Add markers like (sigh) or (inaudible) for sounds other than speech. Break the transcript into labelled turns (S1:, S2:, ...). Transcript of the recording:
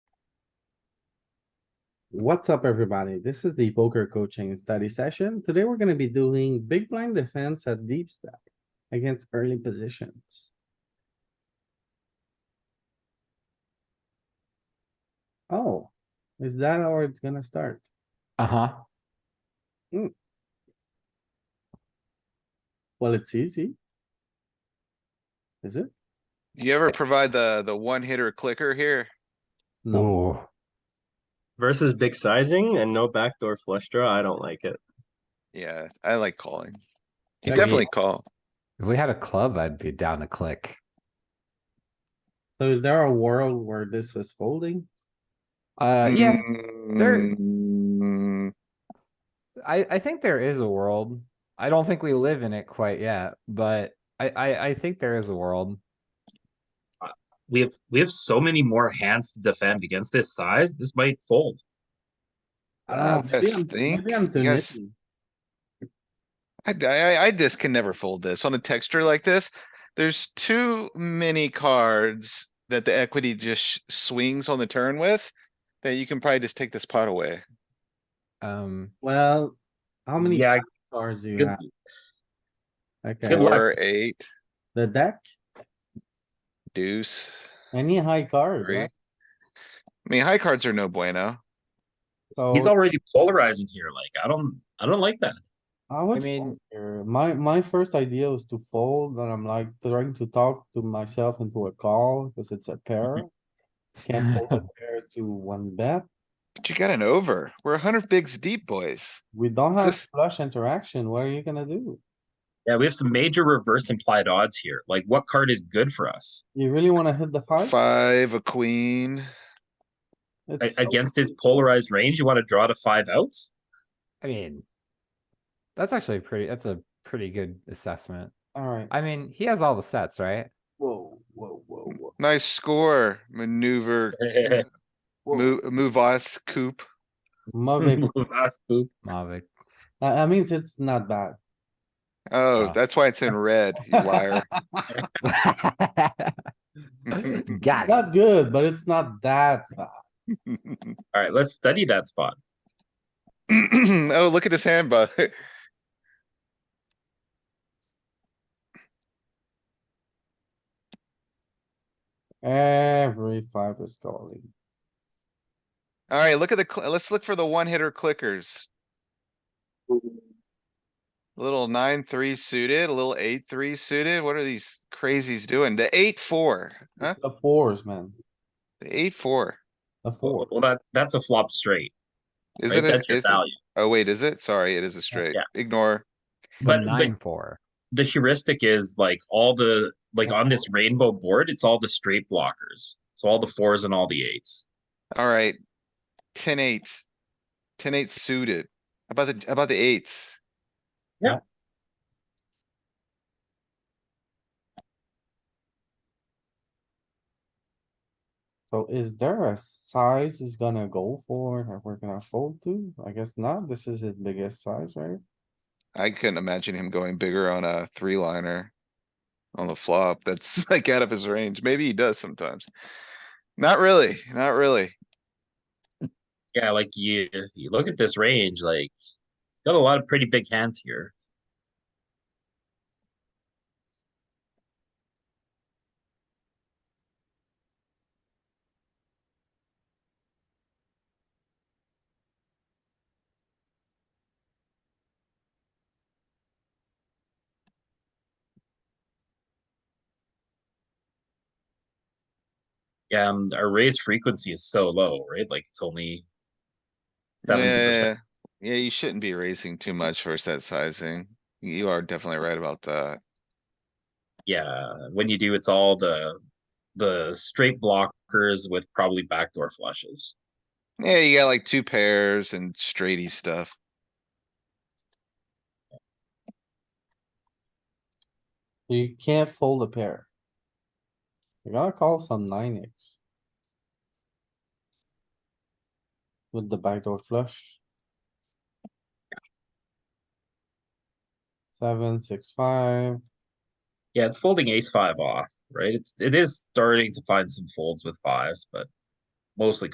S1: What's up, everybody? This is the poker coaching study session. Today, we're gonna be doing big blind defense at deep stack against early positions. Oh, is that how it's gonna start? Hmm.
S2: Uh huh.
S1: Well, it's easy. Is it?
S3: You
S2: Eh,
S3: ever provide the, the one hitter clicker here?
S1: No,
S2: No.
S4: versus big sizing and no backdoor flush draw, I don't like it.
S3: Yeah, I like calling. You
S1: Yeah,
S3: definitely call.
S2: If we had a club, I'd be down to click.
S1: so is there a world where this was folding?
S2: Uh,
S3: Mm-hmm.
S2: yeah, there-
S3: Mm,
S2: I, I think there is a world. I don't think we live in it quite yet, but I, I, I think there is a world.
S5: we have we have so many more hands to defend against this size. This might fold.
S1: I don't know,
S2: Uh,
S1: maybe I'm-
S3: think-
S1: Maybe I'm too
S3: yes.
S1: nitty.
S3: I, I, I just can never fold this on a texture like this. There's too many cards that the equity just sh- swings on the turn with. That you can probably just take this pot away.
S2: Um,
S1: Well, how many
S5: Yeah,
S1: cards do you
S5: good-
S1: have? Okay,
S5: Good luck.
S3: Four, eight,
S1: the deck,
S3: deuce.
S1: any high card,
S3: Three.
S1: right?
S3: I mean, high cards are no bueno.
S1: So.
S5: he's already polarizing here. Like I don't I don't like that.
S1: I would fold
S2: mean-
S1: here. My, my first idea was to fold, and I'm like trying to talk to myself into a call, because it's a pair.
S5: Mm-hmm.
S1: Can't fold
S5: (laughs)
S1: a pair to one bet.
S3: But you got an over. We're a hundred bigs deep, boys.
S1: We don't have
S3: This-
S1: flush interaction. What are you gonna do?
S5: Yeah, we have some major reverse implied odds here. Like what card is good for us
S1: You really wanna hit the five?
S3: Five, a queen.
S5: A-
S1: It's so
S5: against his
S1: easy.
S5: polarized range? You want to draw to five outs?
S2: I mean, that's actually pretty, that's a pretty good assessment.
S1: Alright,
S2: I mean, he has all the sets, right?
S1: whoa, whoa, whoa, whoa,
S3: Nice score, maneuver,
S1: whoa.
S3: move, move us, coop.
S5: (laughs)
S1: Moving,
S5: Last poop.
S2: Mavic.
S1: that, that means it's not bad.
S3: Oh,
S2: Ah.
S3: that's why it's in red, you
S5: (laughs)
S3: liar.
S2: (laughs)
S3: (clears throat)
S2: Got it.
S1: Not good, but it's not that bad.
S5: All right, let's study that spot.
S3: Oh, look at his hand, bud. (laughs)
S1: Every five is calling.
S3: Alright, look at the, cl- let's look for the one hitter clickers. Little nine, three suited, a little eight, three suited. What are these crazies doing? The eight, four, huh?
S1: It's the fours, man,
S3: The eight, four.
S1: the four.
S5: Well, that that's a flop straight. Right?
S3: Isn't it?
S5: that's your
S3: is it-
S5: value.
S3: Oh, wait, is it? Sorry, it is a straight.
S5: yeah.
S3: Ignore.
S5: But- but-
S2: Nine, four.
S5: The heuristic is like all the like on this rainbow board. It's all the straight blockers. So all the fours and all the eights.
S3: Alright. Ten, eight. Ten, eight suited. How About the, how about the eights.
S1: So is there a size he's gonna go for that we're gonna fold to? I guess not. This is his biggest size, right?
S3: I couldn't imagine him going bigger on a three liner. On the flop, that's (laughs) like out of his range. Maybe he does sometimes. Not really, not really.
S5: Yeah, like you, you look at this range, like got a lot of pretty big hands here. Yeah, um, our raise frequency is so low, right? Like it's only seventy
S3: Yeah,
S5: percent.
S3: yeah, you shouldn't be raising too much versus that sizing. You are definitely right about that.
S5: Yeah, when you do, it's all the the straight blockers with probably backdoor flushes.
S3: Yeah, you got like two pairs and straighty stuff.
S1: You can't fold a pair. You gotta call some nine X. With the backdoor flush. Seven, six, five.
S5: Yeah, it's folding ace five off, right? It's it is starting to find some folds with fives, but mostly